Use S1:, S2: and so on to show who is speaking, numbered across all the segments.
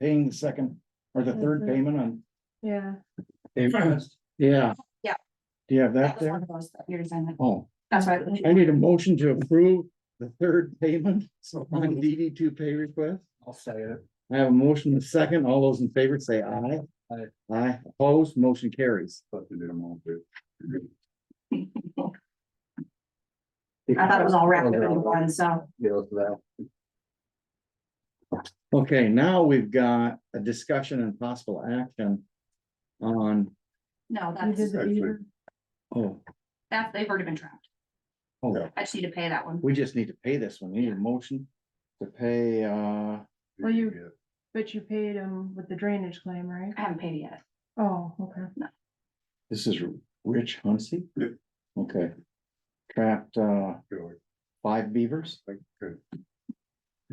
S1: paying the second or the third
S2: Mm-hmm.
S3: Mhm.
S1: payment on.
S3: Yeah.
S1: Yeah.
S2: Yeah.
S1: Do you have
S2: That
S1: that
S2: was one
S1: there?
S2: of those that you're signing.
S1: Oh,
S2: That's right.
S1: I need a motion to approve the third payment on DD two pay request.
S4: I'll say it.
S1: I have a motion and a second. All those in favor say aye.
S4: Aye.
S1: Aye, opposed, motion carries.
S4: Thought you did them all, too.
S2: I thought it was all wrapped up in one, so.
S4: Yeah, that's that.
S1: Okay, now we've got a discussion and possible action on,
S2: No,
S3: You
S2: that's,
S3: did the
S4: actually-
S3: beaver.
S1: oh,
S2: that, they've already been trapped.
S1: oh,
S2: I just need to pay that one.
S1: we just need to pay this one. We need a motion to pay, uh,
S3: Well, you- But you paid him with the drainage claim, right?
S2: I haven't paid it yet.
S3: Oh, okay.
S1: this is Rich Huntsey?
S4: Yeah.
S1: Okay. Trapped, uh,
S4: Yeah,
S1: five beavers
S4: okay.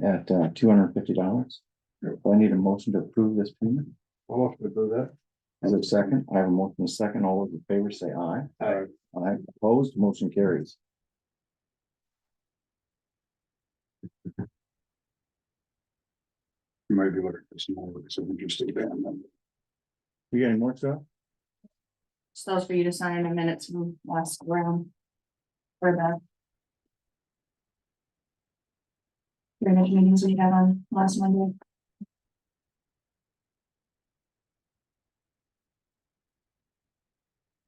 S1: at, uh, two hundred and fifty dollars.
S4: Yeah.
S1: I need a motion to approve this payment.
S4: I'll have to do that.
S1: As a second, I have a motion and a second. All those in favor say aye.
S4: All right.
S1: Aye, opposed, motion carries.
S4: You might be looking for some more, some interesting band members.
S1: You got any more, Scott?
S2: So those for you to sign in a minute from last round. For the. Drainage meetings we had on last Monday.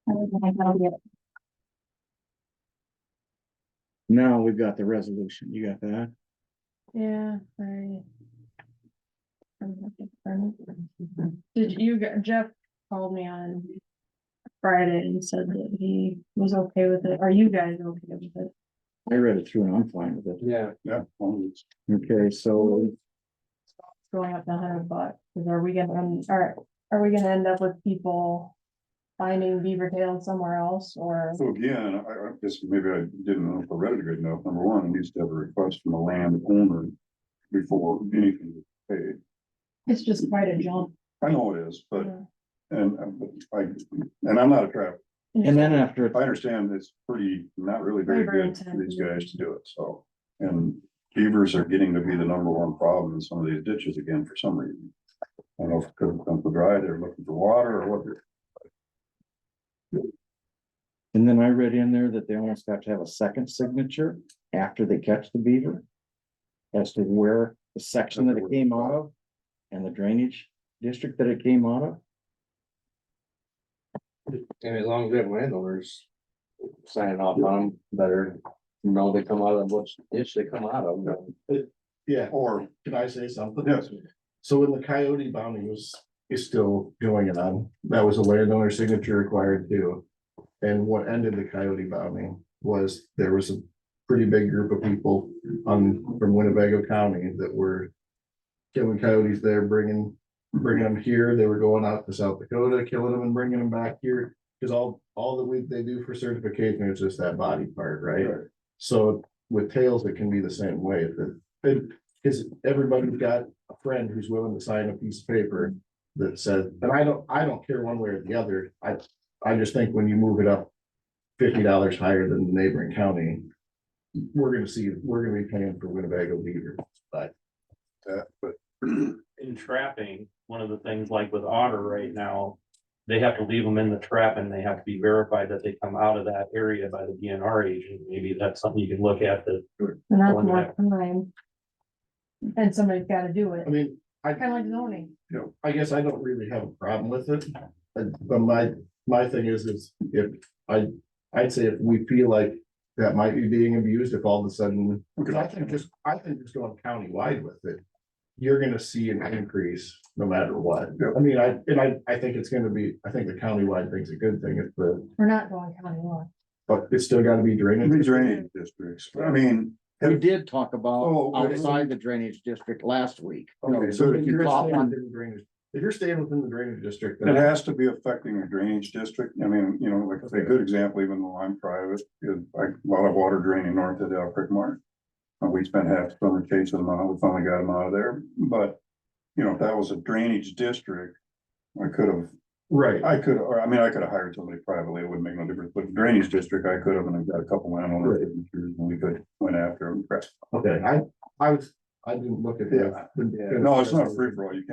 S2: I don't think that'll be it.
S1: Now we've got the resolution. You got that?
S3: Yeah, I. Did you, get- Jeff called me on Friday and said that he was okay with it. Are you guys okay with it?
S1: I read it through and I'm fine with it.
S4: Yeah. Yeah. well, it's-
S1: Okay, so
S3: It's Going up to hundred bucks, 'Cause are we gonna, um, are, are we gonna end up with people finding beaver tails somewhere else or?
S4: So again, I, I guess maybe I didn't know if I read it good enough. Number one, it needs to have a request from the land owner before anything is paid.
S3: It's just quite a jump.
S4: I know it is, but,
S3: yeah.
S4: and, and- but I, and I'm not a trap.
S1: and then after,
S4: I understand it's pretty, not really very
S3: Labor
S4: good for
S3: intensive.
S4: these guys to do it, so. And beavers are getting to be the number one problem in some of these ditches again for some reason. I don't know if it could have come to dry, they're looking for water or what, they're-
S1: and then I read in there that they almost have to have a second signature after they catch the beaver. As to where the section that it came out of and the drainage district that it came out of.
S5: And as long as we have landowners signing off on them, better know they come out of what's, dish they come out of.
S6: Yeah,
S4: or,
S6: can I say something?
S4: yes,
S6: So when the coyote bounty was, is still going on, that was a landowner signature required too. And what ended the coyote bounty was there was a pretty big group of people on, from Winnebago County that were killing coyotes there, bringing, bringing them here. They were going out to South Dakota, killing them and bringing them back here. Cause all, all that we, they do for certification is just that body part, right? So with tails, it can be the same way. That, it, cause everybody's got a friend who's willing to sign a piece of paper that says, and I don't, I don't care one way or the other. I, I just think when you move it up fifty dollars higher than the neighboring county, we're gonna see, we're gonna be paying for Winnebago beaver.
S4: that, but.
S7: in trapping, one of the things like with otter right now, they have to leave them in the trap and they have to be verified that they come out of that area by the DNR agent. Maybe that's something you can look at that.
S3: And that's
S7: Going
S3: more time. And somebody's gotta do it,
S6: I mean, I.
S3: kinda like zoning.
S6: I guess I don't really have a problem with it, uh, but my, my thing is, is if I, I'd say if we feel like. That might be being abused if all of a sudden, because I think just, I think just going countywide with it. You're gonna see an increase no matter what, I mean, I, and I, I think it's gonna be, I think the countywide thing's a good thing, if the,
S3: We're not going county law.
S6: but it's still gotta be drainage.
S4: These drainage districts, I mean.
S1: We did talk
S4: Oh,
S1: about
S4: okay.
S1: outside the drainage district last week.
S4: Okay, so
S6: If
S1: if you
S6: you're
S1: caught
S6: staying
S1: one-
S6: within the drainage- if you're staying within the drainage district. then-
S4: It has to be affecting a drainage district. I mean, you know, like a good example, even though I'm private, is like a lot of water draining north of Del Creek Marsh. And we spent half the summer chasing them out. We finally got them out of there. But, you know, if that was a drainage district, I could have,
S6: Right.
S4: I could, or I mean, I could have hired somebody privately. It wouldn't make no difference. But drainage district, I could have, and I've got a couple landowners signatures, and we could went after them.
S6: Okay, I, I was, I didn't look at that.
S4: No, it's not a free for all. You can't